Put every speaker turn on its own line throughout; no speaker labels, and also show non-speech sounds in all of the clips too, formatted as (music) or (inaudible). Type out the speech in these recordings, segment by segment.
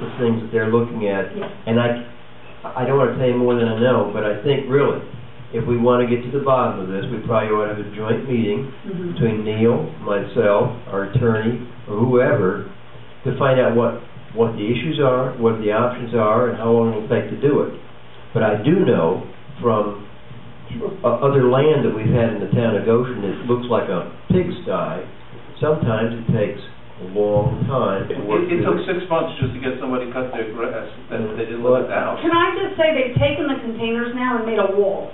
of things that they're looking at.
Yes.
And I, I don't wanna tell you more than I know, but I think really, if we wanna get to the bottom of this, we probably ought to have a joint meeting
Mhm.
between Neil, myself, our attorney, or whoever, to find out what, what the issues are, what the options are, and how long it'll take to do it. But I do know from
Sure.
o- other land that we've had in the town of Goshen that looks like a pigsty, sometimes it takes a long time
It,
to work
it took
through.
six months just to get somebody to cut their grass, that they didn't let it out.
Can I just say, they've taken the containers now and made a wall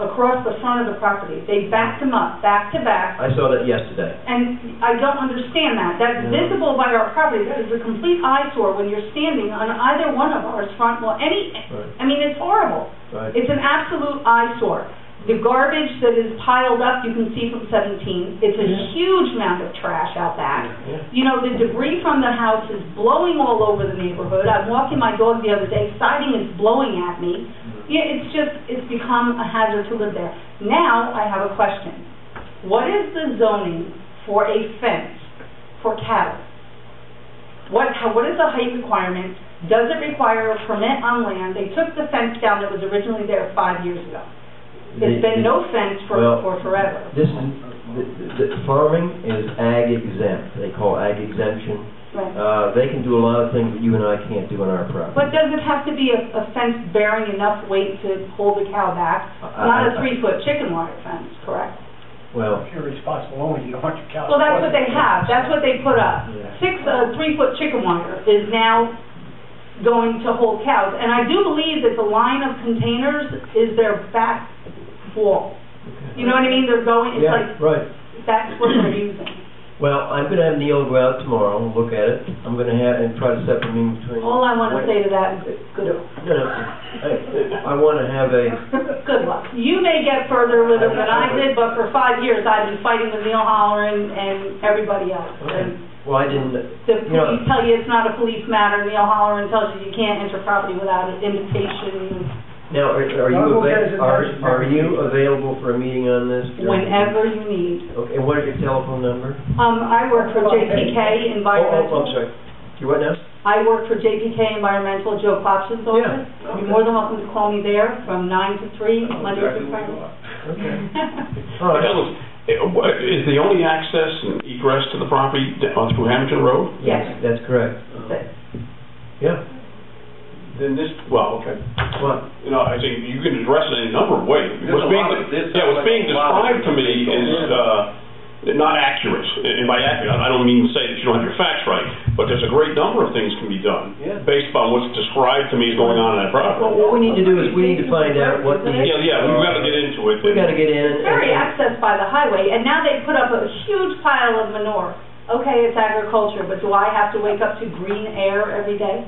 across the front of the property. They backed them up, back to back,
I saw that yesterday.
and I don't understand that. That's
Yeah.
visible by our property, that is a complete eyesore when you're standing on either one of ours front, well, any,
Right,
I mean, it's horrible.
right.
It's an absolute eyesore. The garbage that is piled up, you can see from 17, it's a
Yeah.
huge amount of trash out back.
Yeah.
You know, the debris from the house is blowing all over the neighborhood. I'm walking my dog the other day, siding is blowing at me. Yeah, it's just, it's become a hazard to live there. Now, I have a question. What is the zoning for a fence for cattle? What, how, what is the height requirement? Does it require a permit on land? They took the fence down that was originally there five years ago.
The-
There's been
the-
no fence for,
Well,
for forever,
This is, the, the- the farming is ag exempt, they call ag exemption.
right?
Uh, they can do a lot of things that you and I can't do on our property.
But does it have to be a, a fence bearing enough weight to hold the cow back?
I-
Not
I-
a three-foot chicken wire fence, correct?
Well,
If you're responsible owner, you don't want your cows.
Well, that's what they have, that's what they put up.
Yeah.
Six, uh, three-foot chicken wire is now going to hold cows, and I do believe that the line of containers is their back wall. You know what I mean, they're going, it's
yeah,
like,
right.
that's what they're
(clears throat)
using.
Well, I'm gonna have Neil go out tomorrow and look at it. I'm gonna have, and try to set a meeting between.
All I wanna say to that is good,
No, no, I, I wanna have a,
good luck. You may get further with it than I did, but for five years, I've been fighting with Neil Holleran and everybody else. And
well, I didn't,
The
You know-
police tell you it's not a police matter, Neil Holleran tells you you can't enter property without an invitation.
now, are are you,
Honorable
ava- are,
presentation.
are you available for a meeting on this?
whenever you need.
Okay, and what is your telephone number?
Um, I work for
Oh,
JPK
Oh, I'm
Environmental.
sorry. You what now?
I work for JPK Environmental, Joe Klopson's office.
Yeah.
You're more than welcome to call me there from nine to three,
I know
Monday
exactly
through
what
Friday.
you want.
Okay. All right.
Ellen, eh, what- Is the only access and egress to the property d- on through Hamilton Road?
(laughs) Yes.
That's correct.
But
Yeah.
Then this, well, okay.
What?
You know, I think you can address it in a number of ways.
There's
What's
a
being,
lot of- there's
yeah, what's
like
being
a lot of
described to me
things
is,
going
uh, not accurate. And by accurate, I don't mean to say that you don't have your facts right, but there's a great number of things can be done
Yeah.
based upon what's described to me is going on in that
Well,
property.
what we need to do is we need to find out what the.
Yeah, yeah, we've got to get into it.
We gotta get in and.
It's very accessed by the highway, and now they put up a huge pile of manure. Okay, it's agriculture, but do I have to wake up to green air every day?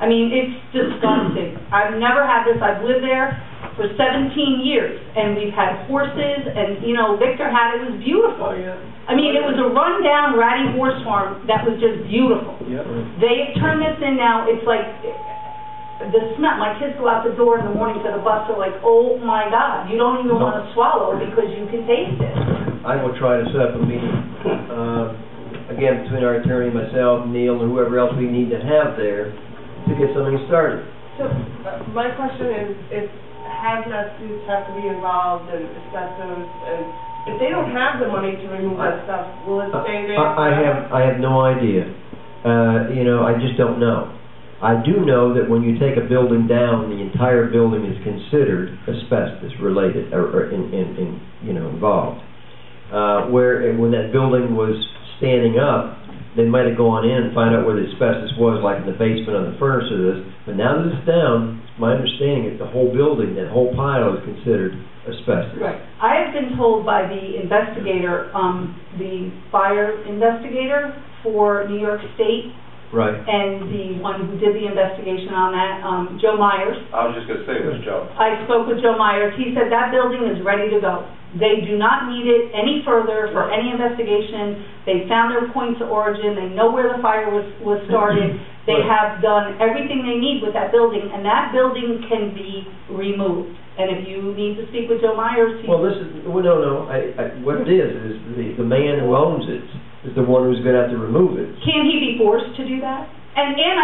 I mean, it's disgusting. I've never had this, I've lived there for 17 years, and we've had horses, and, you know, Victor had, it was beautiful. I mean, it was a rundown ratty horse farm that was just beautiful. They turn this in now, it's like, the smell, my kids go out the door in the morning to the bus, they're like, oh my God, you don't even want to swallow because you can taste it.
I will try to set up a meeting, uh, again, between our attorney, myself, Neil, and whoever else we need to have there to get something started.
So, uh, my question is, if hazmat suits have to be involved and asbestos, and if they don't have the money to remove that stuff, will it stay there?
Uh, I I have, I have no idea. Uh, you know, I just don't know. I do know that when you take a building down, the entire building is considered asbestos related or, or in, in, in, you know, involved. Uh, where, and when that building was standing up, they might have gone in and find out where the asbestos was, like in the basement of the furnace or this. But now that it's down, it's my understanding is the whole building, that whole pile is considered asbestos.
Right. I have been told by the investigator, um, the fire investigator for New York State
Right.
and the one who did the investigation on that, um, Joe Myers,
I was just gonna say, it was Joe.
I spoke with Joe Myers, he said that building is ready to go. They do not need it any further for any investigation. They found their points of origin, they know where the fire was, was started.
(clears throat)
They
Right.
have done everything they need with that building, and that building can be removed. And if you need to speak with Joe Myers, he...
Well, this is, well, no, no, I, I, what it is, is the, the man who owns it is the one who's gonna have to remove it.
Can he be forced to do that? And, and